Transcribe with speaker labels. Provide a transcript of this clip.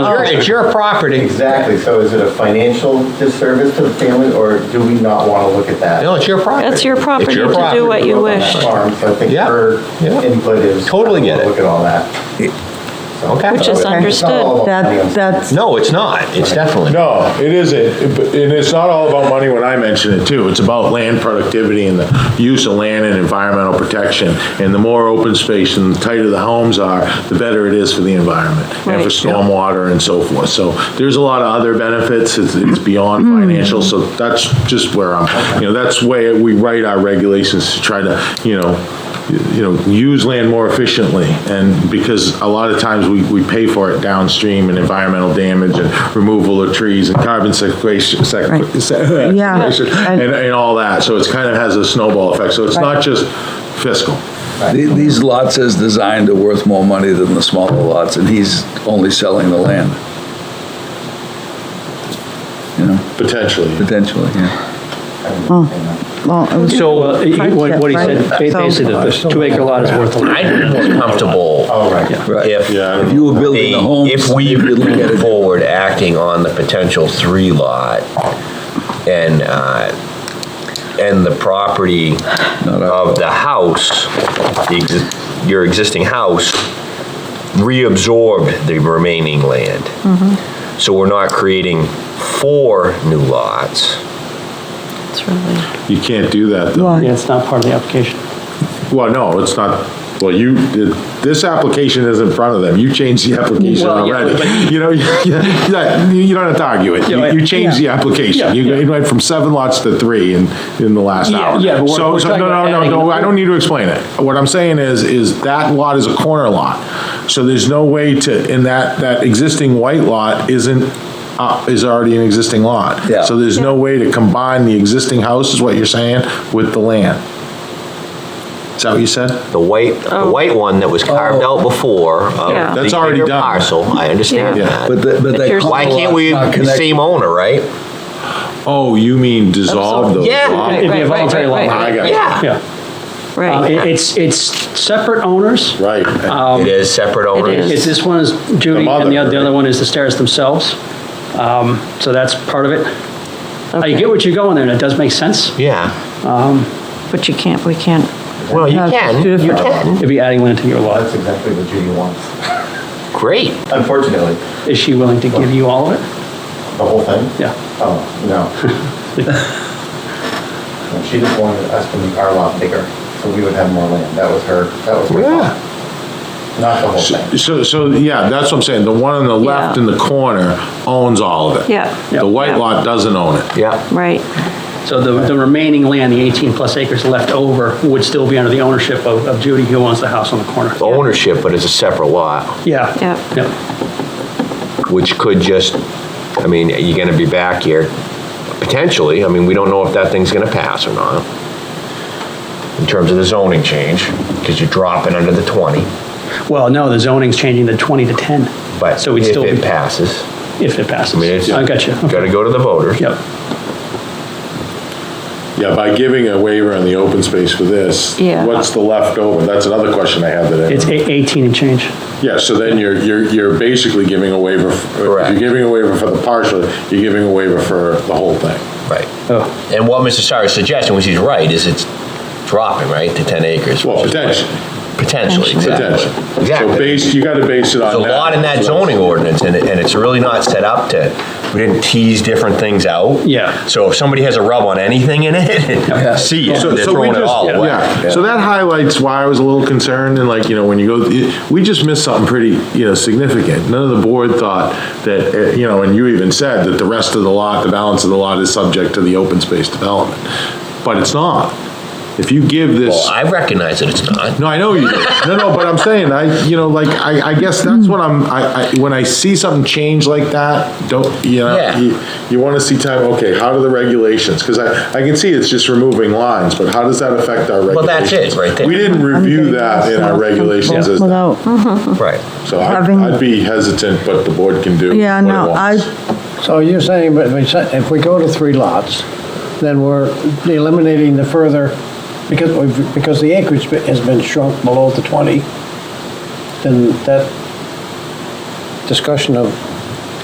Speaker 1: Your- It's your property.
Speaker 2: Exactly, so is it a financial disservice to the family, or do we not want to look at that?
Speaker 1: No, it's your property.
Speaker 3: That's your property
Speaker 1: your
Speaker 3: to do what you
Speaker 2: Grew up on
Speaker 3: wish.
Speaker 2: that farm, So I think
Speaker 1: Yeah,
Speaker 2: her
Speaker 1: yeah.
Speaker 2: input is.
Speaker 1: Totally get it.
Speaker 2: Look at all that. So-
Speaker 1: Okay. Which
Speaker 3: is
Speaker 2: It's not
Speaker 3: understood.
Speaker 2: all about
Speaker 4: That,
Speaker 2: money.
Speaker 4: that's,
Speaker 1: No, it's not. It's definitely. not.
Speaker 5: No, it isn't, But- and it's not all about money when I mention it too, it's about land productivity and the use of land and environmental protection, and the more open space and the tighter the homes are, the better it is for the environment, and for
Speaker 3: Right.
Speaker 5: stormwater and so forth, so there's a lot of other benefits, it's, it's beyond
Speaker 4: Mm.
Speaker 5: financial, so that's just where I'm, you know, that's where we write our regulations to try to, you know, you know, use land more efficiently, and because a lot of times we, we pay for it downstream and environmental damage and removal of trees and carbon sequestration,
Speaker 4: Right.
Speaker 5: sequ-
Speaker 4: Yeah.
Speaker 5: and, and all that, so it's kind of has a snowball effect, so it's not just fiscal.
Speaker 6: The- These lots as designed are worth more money than the smaller lots, and he's only selling the land. You know,
Speaker 5: Potentially.
Speaker 6: potentially, yeah.
Speaker 4: well, it was-
Speaker 7: So uh, he- what what he said,
Speaker 4: Hardship, right?
Speaker 7: basically, the two-acre lot is worth a
Speaker 1: I'd
Speaker 7: lot.
Speaker 1: be more comfortable
Speaker 2: All right,
Speaker 6: Right.
Speaker 8: If-
Speaker 5: Yeah, I don't
Speaker 6: If you were building the homes.
Speaker 8: If we
Speaker 6: you'd look at
Speaker 8: move
Speaker 6: it-
Speaker 8: forward acting on the potential three lot and, uh, and the property of the house, the exi- your existing house, reabsorbed the remaining land. So we're not creating four new lots.
Speaker 3: It's really.
Speaker 5: You can't do that, though.
Speaker 4: Why?
Speaker 7: Yeah, it's not part of the application.
Speaker 5: Well, no, it's not, well, you, this application is in front of them, you changed the application
Speaker 7: Well, yeah,
Speaker 5: already. You know, you you- you don't have to argue it,
Speaker 7: Yeah,
Speaker 5: You- you changed the application,
Speaker 7: Yeah,
Speaker 5: you went from seven lots to three in, in the last
Speaker 7: Yeah,
Speaker 5: hour.
Speaker 7: yeah, but we're-
Speaker 5: So,
Speaker 7: we're
Speaker 5: so,
Speaker 7: talking
Speaker 5: no,
Speaker 7: about
Speaker 5: no, no,
Speaker 7: adding-
Speaker 5: no, I don't need to explain it. What I'm saying is, is that lot is a corner lot, so there's no way to, and that, that existing white lot isn't, uh, is already an existing lot.
Speaker 6: Yeah.
Speaker 5: So there's no way to combine the existing house, is what you're saying, with the land. Is that what you said?
Speaker 8: The white, the white one that was carved out before of
Speaker 3: Oh. Yeah.
Speaker 8: the
Speaker 5: That's already
Speaker 8: bigger
Speaker 5: done.
Speaker 8: parcel, I understand
Speaker 3: Yeah.
Speaker 8: that.
Speaker 6: But the, but that.
Speaker 3: Here's-
Speaker 8: Why can't we,
Speaker 6: corner lot's not
Speaker 8: same owner, right?
Speaker 5: Oh, you mean dissolve those?
Speaker 8: Yeah.
Speaker 5: lots?
Speaker 7: It'd be
Speaker 3: Right,
Speaker 7: a
Speaker 3: right,
Speaker 7: voluntary
Speaker 3: right,
Speaker 7: lot.
Speaker 3: right,
Speaker 5: I got you.
Speaker 8: Yeah,
Speaker 7: Yeah. Um,
Speaker 3: Right.
Speaker 7: it- It's, it's separate owners.
Speaker 5: Right.
Speaker 8: it is Um, separate owners.
Speaker 3: is.
Speaker 7: It's, this one is Judy,
Speaker 5: mother,
Speaker 7: and the other, the other
Speaker 5: right?
Speaker 7: one is the stairs themselves. Um, So that's part of it. I get what you're going there, and it does make sense.
Speaker 8: Yeah,
Speaker 3: But you can't, we can't,
Speaker 8: well, you
Speaker 4: That's
Speaker 8: can, you
Speaker 4: different.
Speaker 8: can,
Speaker 7: If you're adding land to your
Speaker 2: that's
Speaker 7: lot,
Speaker 2: exactly what Judy wants,
Speaker 8: great.
Speaker 2: unfortunately,
Speaker 7: is she willing to give you all of it?
Speaker 2: the whole thing.
Speaker 7: Yeah.
Speaker 2: Oh, no. No, She just wanted us to make our lot bigger, so we would have more land, that was her, that was her
Speaker 5: Yeah.
Speaker 2: thought. Not the whole thing.
Speaker 5: So, so, yeah, that's what I'm saying, the one on the left
Speaker 3: Yeah.
Speaker 5: in the corner owns all of it.
Speaker 3: Yeah.
Speaker 5: The white
Speaker 3: Yeah.
Speaker 5: lot doesn't own it.
Speaker 8: Yeah,
Speaker 3: right,
Speaker 7: So the, the remaining land, the 18-plus acres left over, would still be under the ownership of of Judy, who owns the house on the corner.
Speaker 8: ownership, but it's a separate lot,
Speaker 7: Yeah.
Speaker 3: Yep.
Speaker 7: Yeah.
Speaker 8: which could just, I mean, you're gonna be back here, potentially, I mean, we don't know if that thing's gonna pass or not, in terms of the zoning change, because you're dropping under the 20,
Speaker 7: Well, no, the zoning's changing the 20 to 10.
Speaker 8: but
Speaker 7: So we'd
Speaker 8: if
Speaker 7: still be-
Speaker 8: it passes,
Speaker 7: If it passes.
Speaker 8: I mean, it's.
Speaker 7: I got you. Okay.
Speaker 8: Gotta go to the voters.
Speaker 7: Yep.
Speaker 5: Yeah, by giving a waiver on the open space for this,
Speaker 3: Yeah.
Speaker 5: what's the leftover? That's another question I had that
Speaker 7: It's
Speaker 5: I,
Speaker 7: eight- 18 and change.
Speaker 5: yeah, so then you're, you're, you're basically giving a waiver. f- If
Speaker 8: Correct.
Speaker 5: you're giving a waiver for the partial, you're giving a waiver for the whole thing.
Speaker 8: Right.
Speaker 7: Oh,
Speaker 8: And what Mr. Sire is suggesting, which he's right, is it's dropping, right, to 10 acres.
Speaker 5: Well,
Speaker 8: which is like-
Speaker 5: potentially,
Speaker 8: Potentially,
Speaker 5: potentially.
Speaker 8: exactly.
Speaker 5: So
Speaker 8: Exactly.
Speaker 5: base, you gotta base it on
Speaker 8: There's a
Speaker 5: that.
Speaker 8: lot in that zoning ordinance, and it- and it's really not set up to, we didn't tease different things out.
Speaker 7: Yeah.
Speaker 8: So if somebody has a rub on anything in it, see, it,
Speaker 5: So-
Speaker 8: they're
Speaker 5: so we
Speaker 8: throwing it
Speaker 5: just-
Speaker 8: all away.
Speaker 5: yeah. So that highlights why I was a little concerned and like, you know, when you go, we just missed something pretty, you know, significant. None of the board thought that, eh, you know, and you even said that the rest of the lot, the balance of the lot is subject to the open space development. But it's not. If you give
Speaker 8: Well,
Speaker 5: this,
Speaker 8: I recognize that it's not.
Speaker 5: no, I know you do. No, no, but I'm saying, I, you know, like, I, I guess that's what I'm, I, I, when I see something change like that, don't, you know,
Speaker 8: Yeah.
Speaker 5: you, you wanna see time, okay, how do the regulations? Cause I, I can see it's just removing lines, but how does that affect our regulations?
Speaker 8: Well, that's it, right there.
Speaker 5: We didn't review that in our regulations, as- so
Speaker 4: Without
Speaker 8: Right.
Speaker 5: I'd,
Speaker 4: having-
Speaker 5: I'd be hesitant, but the board can do what it
Speaker 4: Yeah, no, I,
Speaker 5: wants.
Speaker 9: So you're saying, but we said- if we go to three lots, then we're eliminating the further, because, we've- because the acreage be- has been shrunk below the 20, then that discussion of